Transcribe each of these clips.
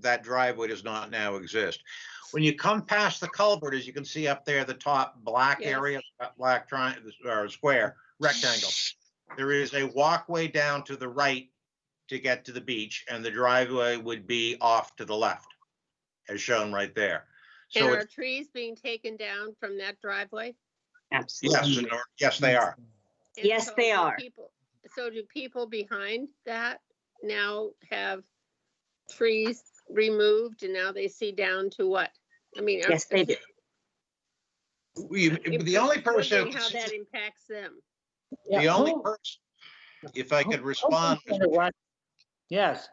that driveway does not now exist. When you come past the culvert, as you can see up there, the top black Yes. area, that black triangle, or square, rectangle. There is a walkway down to the right to get to the beach, and the driveway would be off to the left, as shown right there. And So are it's, trees being taken down from that driveway? yes, in Absolutely. or- yes, they are. And Yes, so they do are. people- So do people behind that now have trees removed and now they see down to what? I mean. are- Yes, they do. We- The only I'm person. wondering How Oh. that impacts them. The Yeah, Oh, only who- person, if Oh, I could who respond, said it was- Yes.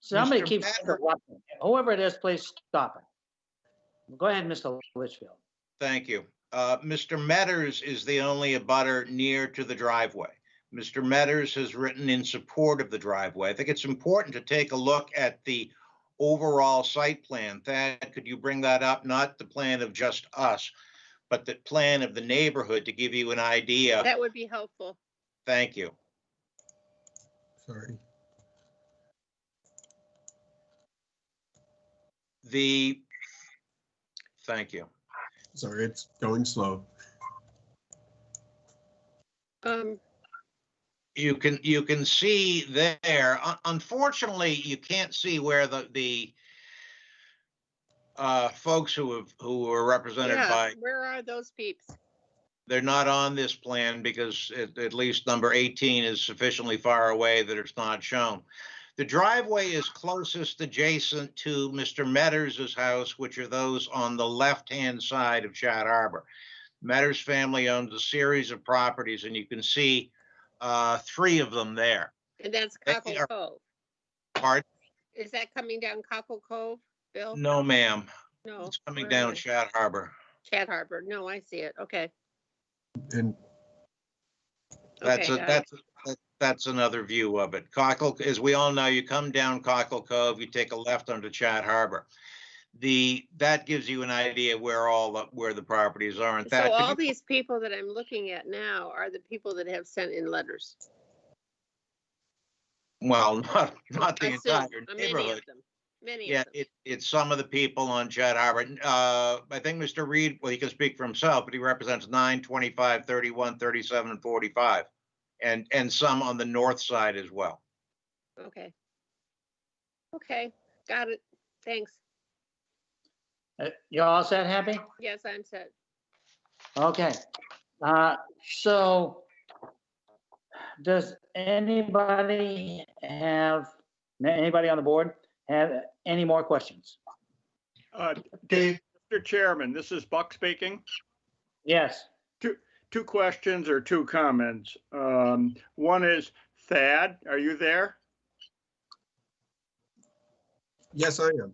Somebody Mr. keeps, Patrick- interrupting. whoever it is, please stop it. Go ahead, Mr. Litchfield. thank you. Uh, Mr. Metters is the only abutter near to the driveway. Mr. Metters has written in support of the driveway. I think it's important to take a look at the overall site plan. Thad, could you bring that up? Not the plan of just us, but the plan of the neighborhood to give you an idea. That would be helpful. Thank you. Sorry. The, thank you. Sorry, it's going slow. Um, you can you can see there Un- unfortunately you can't see where the the uh folks who have who are represented yeah, by where are those peeps? they're not on this plan because at, at least number 18 is sufficiently far away that it's not shown the driveway is closest adjacent to mr metters's house which are those on the left hand side of chad harbor Metters family owns a series of properties and you can see uh three of them there And that's They Cockle are- Cove. Pardon? Is that coming down Cockle Cove, Bill? No, ma'am. No. It's coming where down is it? Shad Harbor. Chat Harbor. No, I see it. Okay. And That's, Okay, a got it. that's, that- that's another view of it. Cockle, as we all know, you come down Cockle Cove, you take a left onto Shad Harbor. The, that gives you an idea where all, the- where the properties are. And So all that, these people that I'm looking at now are the people that have sent in letters. well, not, not the I assume, entire uh, Many neighborhood. of them. Many Yeah, of them. it, it's some of the people on Chad Harbor. Uh, I think Mr. Reed, well, he can speak for himself, but he represents nine, twenty-five, thirty-one, thirty-seven, and forty-five. And, and some on the north side as well. Okay. Okay, got it. Thanks. Uh, You all set, happy? Yes, I'm set. Okay. Uh, So does anybody have, anybody on the board have any more questions? Uh, Dave, Mr. Chairman, this is Buck speaking. Yes. Two questions or two comments. Um, One is Thad, are you there? yes, I am.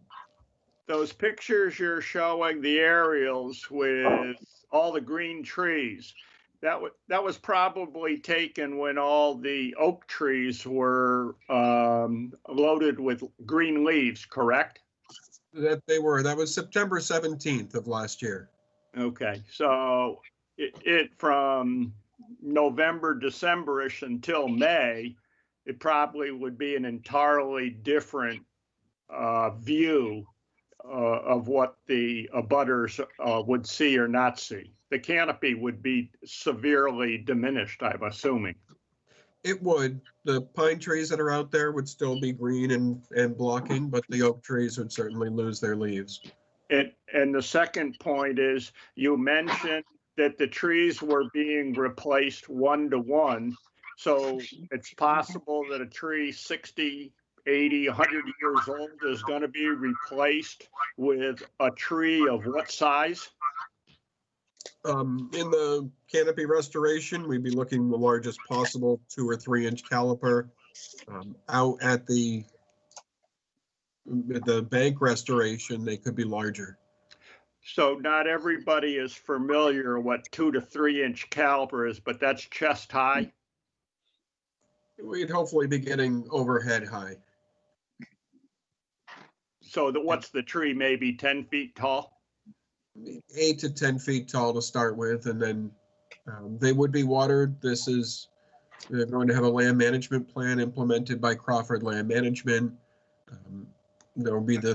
Those pictures you're showing, the aerials with all the green trees, that was, that was probably taken when all the oak trees were um, loaded with green leaves, correct? That they were, that was September 17th of last year. Okay, so it, it from November, Decemberish until May, it probably would be an entirely different uh, view uh, of what the abutters uh, would see or not see. The canopy would be severely diminished, I'm assuming. It would, the pine trees that are out there would still be green and, and blocking, but the oak trees would certainly lose their leaves. And, and the second point is, you mentioned that the trees were being replaced one to one. So it's possible that a tree 60, 80, 100 years old is going to be replaced with a tree of what size? Um, in the canopy restoration, we'd be looking the largest possible two or three inch caliper. Um, out at the, the bank restoration, they could be larger. So not everybody is familiar what two to three inch caliper is, but that's chest high. We'd hopefully be getting overhead high. So that what's the tree, maybe 10 feet tall? eight to 10 feet tall to start with, and then um, they would be watered. This is, they're going to have a land management plan implemented by Crawford Land Management. Um, There will be the